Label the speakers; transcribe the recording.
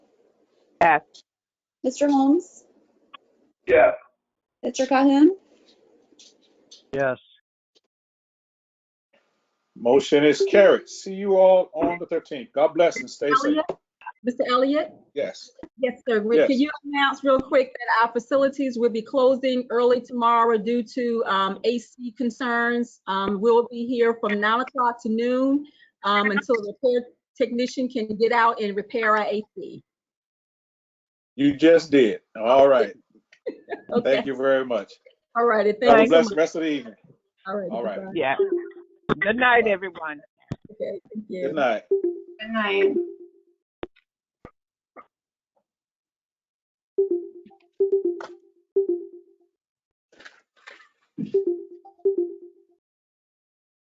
Speaker 1: Yes.
Speaker 2: Mr. Holmes?
Speaker 3: Yes.
Speaker 2: Mr. Cahoon?
Speaker 4: Yes.
Speaker 3: Motion is carried. See you all on the thirteenth. God bless and stay safe.
Speaker 5: Elliott? Mr. Elliott?
Speaker 3: Yes.
Speaker 5: Yes, sir. Rick,
Speaker 3: Yes.
Speaker 5: Can you announce real quick that our facilities will be closing early tomorrow due to um, AC concerns? Um, We'll be here from 9 o'clock to noon um, until the repair technician can get out and repair our AC.
Speaker 3: You just did. All right.
Speaker 5: Okay.
Speaker 3: Thank you very much.
Speaker 5: All righty,
Speaker 3: Have a
Speaker 5: thank you.
Speaker 3: blessed rest of the evening. All right.
Speaker 5: goodbye.
Speaker 1: Yeah. Good night, everyone.
Speaker 5: Okay, thank you.
Speaker 3: Good night.
Speaker 2: Good night.